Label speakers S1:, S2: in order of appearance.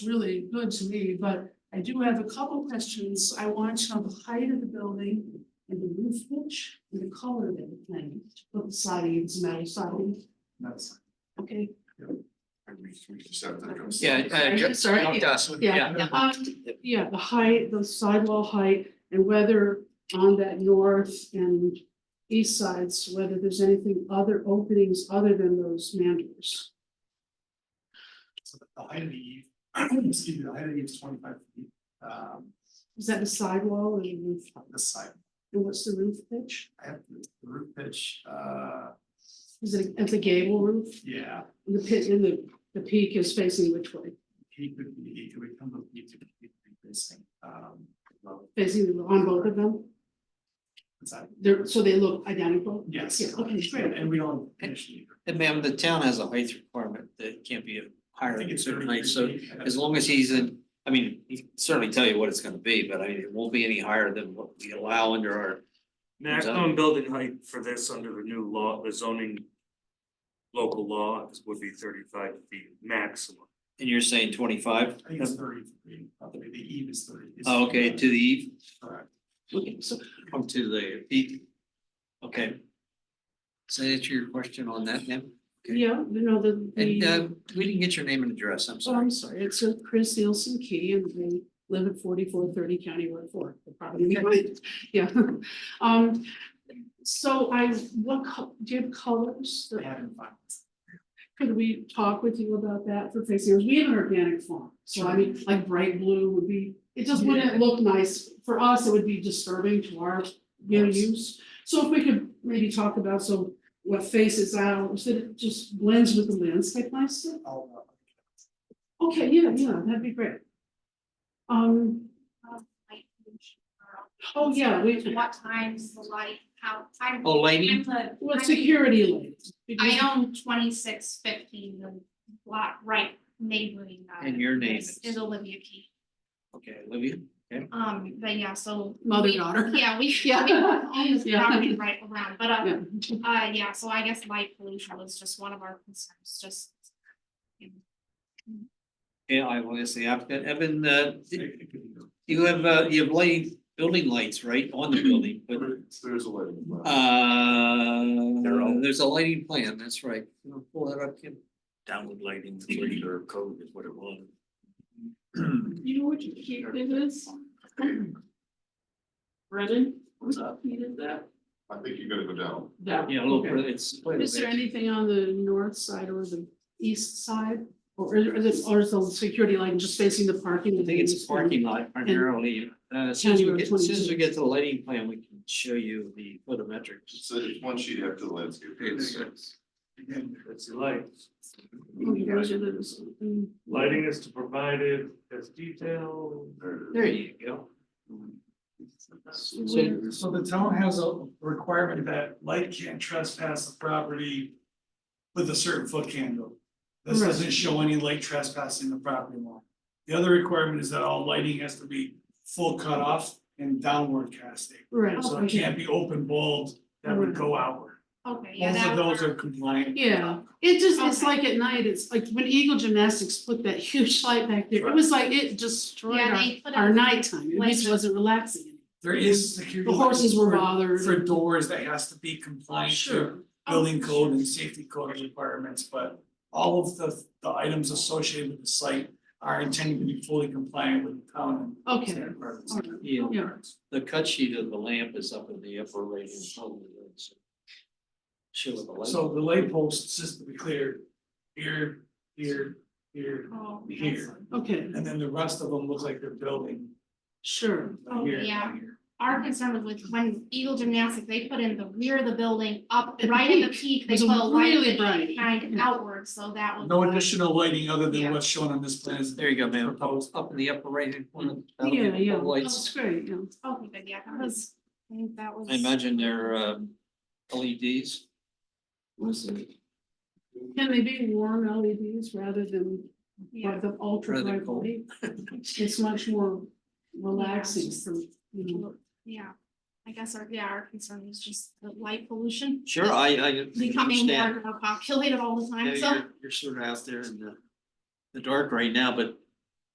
S1: really good to me, but I do have a couple questions. I want to know the height of the building and the roof pitch and the color of it, like, put sidings, metal siding,
S2: That's.
S1: okay?
S2: I mean, we just have to go-
S1: Yeah,
S3: uh,
S1: I- I- sorry,
S2: No,
S1: yeah,
S2: that's-
S1: Yeah, the height- yeah, the height, the sidewall height, and whether on that north and east sides, whether there's anything other openings other than those mandors.
S2: So The the height of the eve, excuse me, the height of the eve is twenty-five feet, um,
S1: Is that a sidewall or a roof?
S2: on this side,
S1: And what's the roof pitch?
S2: I have the the roof pitch, uh,
S1: Is it at the gable roof?
S2: yeah,
S1: The pit in the, the peak is facing which way?
S2: he could be, he could come up, he could be facing, um, well,
S1: Facing the- on both of them?
S2: it's out.
S1: They're, so they look identical?
S2: Yes.
S1: Yeah, okay,
S2: And
S1: great.
S2: and we don't finish it either.
S3: And ma'am, the town has a height requirement that can't be
S2: I
S3: higher
S2: think
S3: than a
S2: it's
S3: certain
S2: 33
S3: height, so
S2: feet.
S3: as long as he's in, I mean, he can certainly tell you what it's gonna be, but I mean, it won't be any higher than what we allow under our.
S4: Maximum building height for this under the new law, the zoning. Local law is would be thirty-five feet maximum.
S3: And you're saying twenty-five?
S2: I think it's thirty-three, probably the eve is thirty. is-
S3: Oh, Okay, to the eve,
S2: Correct.
S3: okay, so, come to the peak. Okay. So that's your question on that, ma'am? Okay.
S1: Yeah, you know, the,
S3: And
S1: the,
S3: uh, we didn't get your name and address, I'm
S1: so
S3: sorry.
S1: I'm sorry, it's a Chris Nielsen Key and they live at forty-four thirty County Road four. They're probably behind. Yeah. Um, so I, what, co- do you have colors?
S2: I haven't found.
S1: Could we talk with you about that for facing, we have an organic farm, so I mean, like bright blue would be, it just wouldn't look nice. For us, it would be disturbing to our, you know, use, so if we could maybe talk about so what faces out, so that it just blends with the landscape nicely.
S2: I'll, uh,
S1: Okay, yeah, yeah, that'd be great. Um,
S5: light pollution or-
S1: oh, yeah, we,
S5: What times the light, how, I'm,
S3: Oh,
S5: I'm
S3: Laney,
S5: the,
S1: well,
S5: I'm-
S1: security lights.
S5: I own twenty-six fifteen, the block right neighboring. uh,
S3: And your name
S5: is-
S3: is?
S5: Is Olivia Key,
S3: okay, Olivia,
S5: um, but yeah, so.
S1: Mother,
S5: we-
S1: daughter.
S5: Yeah, we, we
S1: Yeah.
S5: own this
S1: Yeah.
S5: property right around, but, uh,
S1: Yeah,
S5: uh, yeah, so I guess light pollution was just one of our concerns, just.
S3: yeah, I will ask the applicant, Evan, uh,
S2: it- it could be-
S3: You have, uh, you have light, building lights, right, on the building, but,
S2: There's a lighting.
S3: uh,
S4: all-
S3: there's a lighting plan, that's right. You wanna Pull that up, Kim.
S4: Downward lighting, regular code is what it was.
S1: You know what you keep it is? Brennan, what's up, you did that?
S2: I think you gotta go down.
S1: That.
S3: Yeah, a little
S1: okay.
S3: further, it's.
S1: Is there anything on the north side or the east side? Or is, is it, or is the security line just facing the parking?
S3: I think it's a parking lot primarily, uh, as soon as we get, as soon as we get to the lighting plan, we can show you the photometrics.
S6: So it's one sheet after the landscape.
S4: That's the light.
S1: Oh, you guys are those, mm,
S4: Lighting is to provided as detailed.
S3: There you go.
S1: where-
S2: So the town has a requirement that light can't trespass the property with a certain foot candle. This
S1: Right.
S2: doesn't show any light trespassing the property line. The other requirement is that all lighting has to be full cutoff and downward casting.
S5: Oh,
S1: Right.
S2: So it can't be open bulb that would go outward.
S5: Okay, yeah,
S2: Both
S5: that
S2: of those
S5: was
S2: are
S5: our,
S2: compliant.
S1: Yeah, it just, it's
S5: Okay.
S1: like at night, it's like when Eagle Gymnastics put that huge light back there, it
S2: Right.
S1: was like it destroyed
S5: Yeah,
S1: our,
S5: they put
S1: our
S5: up
S1: nighttime, it just
S5: lights.
S1: wasn't relaxing.
S2: There is security.
S1: The horses were
S2: for-
S1: bothered. Oh,
S2: For doors that has to be compliant to building code and safety code requirements, but all of the, the items associated with the site are intended to be fully compliant with the town and
S1: Okay,
S2: state requirements.
S1: all right.
S3: Yeah,
S1: yeah,
S3: the cut sheet of the lamp is up in the upper right hand corner. so Show the light.
S2: So the light posts, just to be clear, here, here, here,
S5: oh, that's-
S2: here,
S1: okay,
S2: and then the rest of them look like they're building
S1: sure,
S5: Oh,
S2: here,
S5: yeah.
S2: here.
S5: our concern was with when Eagle Gymnastics, they put in the rear of the building up
S1: At the
S5: right in the peak, they
S1: It was
S5: put a light
S1: really
S5: that
S1: bright.
S5: shined
S1: Yeah.
S5: outward, so that was.
S2: No
S5: why-
S2: additional lighting other
S5: Yeah.
S2: than what's shown on this plan is
S3: There you go, ma'am,
S2: proposed.
S3: up in the upper right hand corner. that'll be
S1: yeah,
S3: the
S1: yeah,
S3: Lights.
S1: that's great, yeah.
S5: Oh, Okay, but yeah, that was, I think that was.
S3: I imagine they're um LEDs.
S1: Can they be warm LEDs rather than
S5: Yeah,
S1: like the ultra
S3: Rather
S1: bright
S3: cold.
S1: light? It's much more relaxing for, you know.
S5: yeah, I guess our, yeah, our concern was just the light pollution.
S3: Sure, I I
S5: Becoming more
S3: understand.
S5: and more populated all the
S3: Yeah,
S5: time, so.
S3: you're, you're sort of out there in the, the dark right now, but